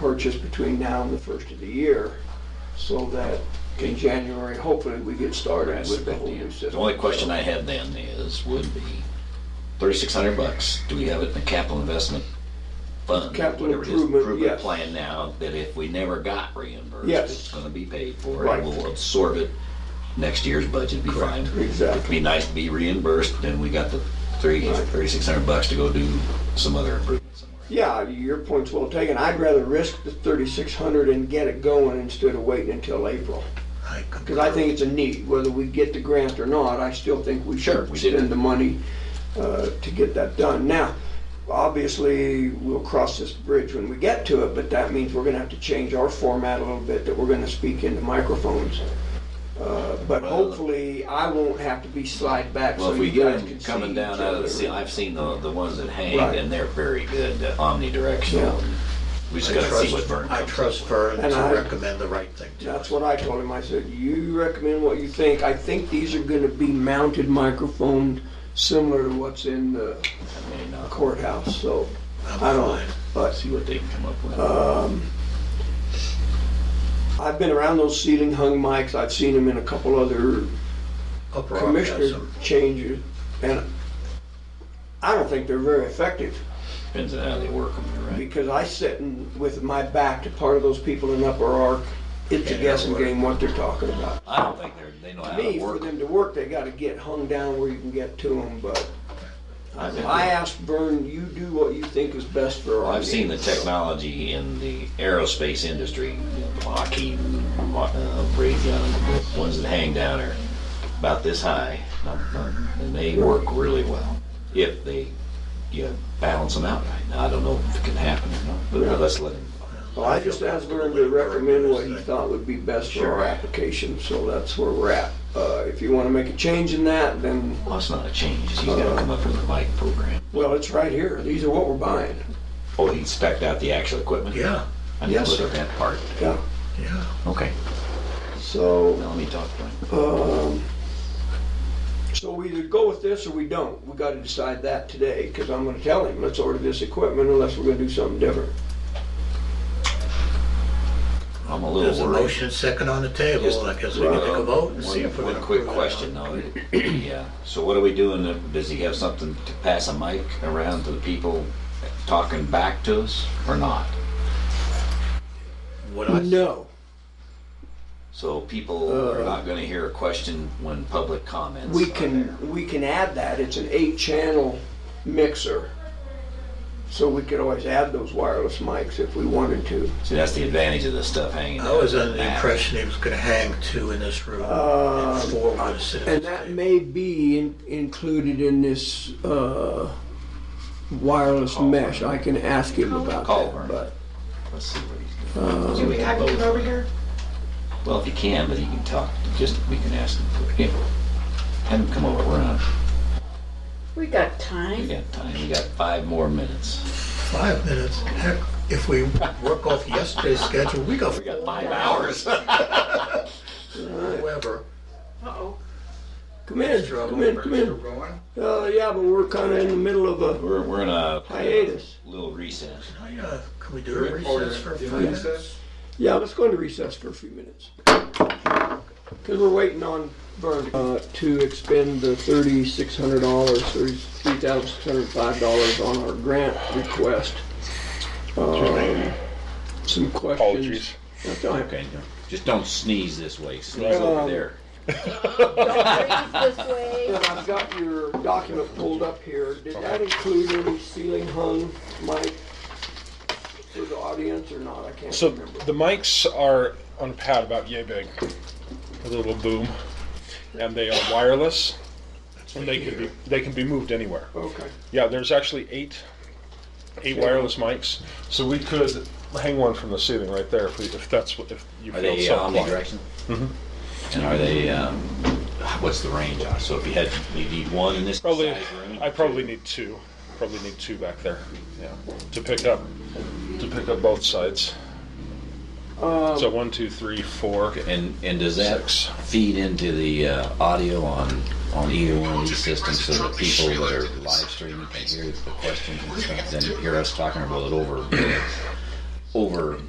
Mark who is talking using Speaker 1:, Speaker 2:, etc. Speaker 1: purchase between now and the first of the year, so that in January, hopefully, we get started
Speaker 2: That's
Speaker 1: with the
Speaker 2: a good
Speaker 1: whole
Speaker 2: deal.
Speaker 1: new system.
Speaker 2: The only question I have then is, would be thirty-six hundred bucks, do we have it in a capital investment fund?
Speaker 1: Capital
Speaker 2: whatever it is,
Speaker 1: improvement, yes.
Speaker 2: Plan now that if we never got reimbursed,
Speaker 1: Yes.
Speaker 2: it's gonna be paid for,
Speaker 1: Right.
Speaker 2: and we'll absorb it, next year's budget be fine. It'd
Speaker 1: Exactly.
Speaker 2: be nice to be reimbursed, but then we got the three,
Speaker 1: Right.
Speaker 2: thirty-six hundred bucks to go do some other improvements somewhere.
Speaker 1: Yeah, your point's well taken. I'd rather risk the thirty-six hundred and get it going instead of waiting until April. Because I think it's a need, whether we get the grant or not, I still think we
Speaker 2: Sure,
Speaker 1: should
Speaker 2: we did.
Speaker 1: spend the money uh, to get that done. Now, obviously, we'll cross this bridge when we get to it, but that means we're gonna have to change our format a little bit, that we're gonna speak into microphones. Uh, But
Speaker 2: Well-
Speaker 1: hopefully, I won't have to be slide back
Speaker 2: Well,
Speaker 1: so
Speaker 2: if we
Speaker 1: you
Speaker 2: get
Speaker 1: guys can
Speaker 2: them
Speaker 1: see
Speaker 2: coming
Speaker 1: each
Speaker 2: down out of the
Speaker 1: other.
Speaker 2: ceiling, I've seen the, the ones that hang,
Speaker 1: Right.
Speaker 2: and they're very good, uh, omnidirectional.
Speaker 1: Yeah.
Speaker 2: We just
Speaker 3: I
Speaker 2: gotta see
Speaker 3: trust-
Speaker 2: what Vern
Speaker 3: I
Speaker 2: comes up
Speaker 3: trust
Speaker 2: with.
Speaker 3: Vern
Speaker 1: And I-
Speaker 3: to recommend the right thing to
Speaker 1: That's
Speaker 3: us.
Speaker 1: what I told him. I said, you recommend what you think. I think these are gonna be mounted microphones similar to what's in the
Speaker 2: I mean, uh,
Speaker 1: courthouse, so
Speaker 3: I'm
Speaker 1: I don't,
Speaker 3: fine.
Speaker 1: but um,
Speaker 2: see what they can come up with.
Speaker 1: I've been around those ceiling hung mics. I've seen them in a couple other
Speaker 3: Up rock has
Speaker 1: commissioner
Speaker 3: some-
Speaker 1: changes, and I don't think they're very effective
Speaker 2: Depends on how they work them, you're right.
Speaker 1: because I sit in with my back to part of those people in Upper Ark. It's a
Speaker 2: Yeah,
Speaker 1: guessing
Speaker 2: they're
Speaker 1: game what they're talking about.
Speaker 2: I don't think they're, they know
Speaker 1: To
Speaker 2: how
Speaker 1: me,
Speaker 2: to
Speaker 1: for
Speaker 2: work
Speaker 1: them to
Speaker 2: them.
Speaker 1: work, they got to get hung down where you can get to them. But
Speaker 2: I think
Speaker 1: I
Speaker 2: they-
Speaker 1: asked Vern, you do what you think is best for our.
Speaker 2: I've seen the
Speaker 1: needs."
Speaker 2: technology in the aerospace industry, you know, Lockheed, uh, Raytheon, the ones that hang down are about this high, not, not, and they work really well if they you know, balance them out right. Now I don't know if it can happen or not, but uh, let's let them.
Speaker 1: Well, I just asked Vern to recommend what he thought would be best for our application, so that's where we're at. Uh, if you want to make a change in that, then,
Speaker 2: Well, it's not a change. He's got to come up with a mic program.
Speaker 1: well, it's right here. These are what we're buying.
Speaker 2: Oh, he spec'd out the actual equipment.
Speaker 3: Yeah,
Speaker 2: I didn't
Speaker 1: Yes,
Speaker 2: look
Speaker 1: sir.
Speaker 2: at that part.
Speaker 1: Yeah.
Speaker 3: yeah.
Speaker 2: Okay.
Speaker 1: So,
Speaker 2: Now let me talk to him.
Speaker 1: um, so we either go with this or we don't. We got to decide that today, because I'm going to tell him, let's order this equipment unless we're going to do something different.
Speaker 2: I'm a little
Speaker 3: There's a
Speaker 2: worried.
Speaker 3: motion second on the
Speaker 2: Just-
Speaker 3: table, I guess we can take a vote and see if we're
Speaker 2: One- One
Speaker 3: gonna.
Speaker 2: quick
Speaker 3: approve it or
Speaker 2: question
Speaker 3: not.
Speaker 2: though, yeah, so what are we doing, does he have something to pass a mic around to the people talking back to us or not?
Speaker 3: What I,
Speaker 1: No.
Speaker 2: So people are
Speaker 3: Uh,
Speaker 2: not gonna hear a question when public comments
Speaker 1: We
Speaker 2: are there.
Speaker 1: can, we can add that. It's an eight-channel mixer. So we could always add those wireless mics if we wanted to.
Speaker 2: See, that's the advantage of this stuff hanging out.
Speaker 3: I was under
Speaker 2: on
Speaker 3: the impression he was gonna hang two in this room
Speaker 1: Uh,
Speaker 3: and four were gonna sit at
Speaker 1: And
Speaker 3: this
Speaker 1: that
Speaker 3: table.
Speaker 1: may be in- included in this uh, wireless
Speaker 2: Call.
Speaker 1: mesh. I can ask him about
Speaker 2: Call.
Speaker 1: that, but.
Speaker 2: Let's see what he's
Speaker 3: uh,
Speaker 2: doing.
Speaker 4: Do we have to come over here?
Speaker 2: Well, if he can, but he can talk, just, we can ask him, for- yeah, have him come over, we're on,
Speaker 4: We got
Speaker 2: we
Speaker 4: time.
Speaker 2: got time, we got five more minutes.
Speaker 3: Five minutes, heck, if we work off yesterday's schedule, we go
Speaker 2: We got
Speaker 3: for
Speaker 2: five hours.
Speaker 3: whoever.
Speaker 4: Uh-oh.
Speaker 1: Come in, come in, come in.
Speaker 3: Rowan?
Speaker 1: Uh, yeah, but we're kind of in the middle of a,
Speaker 2: We're, we're in a
Speaker 1: Hiatus.
Speaker 2: Little recess.
Speaker 3: Oh, yeah, can we do a recess for five minutes?
Speaker 1: yeah, let's go into recess for a few minutes. Because we're waiting on Vern uh, to expend the thirty-six hundred dollars, thirty-three thousand six hundred five dollars on our grant request. Um, Some questions.
Speaker 5: Apologies.
Speaker 1: That's all right.
Speaker 2: Just don't sneeze this way. Sneeze
Speaker 1: Um,
Speaker 2: over there.
Speaker 4: Don't breathe this way.
Speaker 1: And I've got your document pulled up here. Did that include any ceiling hung mic for the audience or not? I can't
Speaker 5: So
Speaker 1: remember.
Speaker 5: the mics are on a pad about yay big, a little boom, and they are wireless, and they can be they can be moved anywhere.
Speaker 1: Okay,
Speaker 5: Yeah, there's actually eight eight wireless mics, so we could hang one from the ceiling right there if, we, if that's what if you
Speaker 2: Are
Speaker 5: feel
Speaker 2: they
Speaker 5: so
Speaker 2: uh,
Speaker 5: inclined.
Speaker 2: omnidirectional? And are they? Um, what's the range on? So if you had, you need one in this
Speaker 5: Probably,
Speaker 2: size room.
Speaker 5: I probably need two. Probably need two back there. Yeah, to pick up to pick up both sides. so one, two, three, four.
Speaker 2: And and does that
Speaker 5: Six.
Speaker 2: feed into the uh, audio on on either one of these systems so that people that are live streaming can hear the questions and stuff and hear us talking about it over over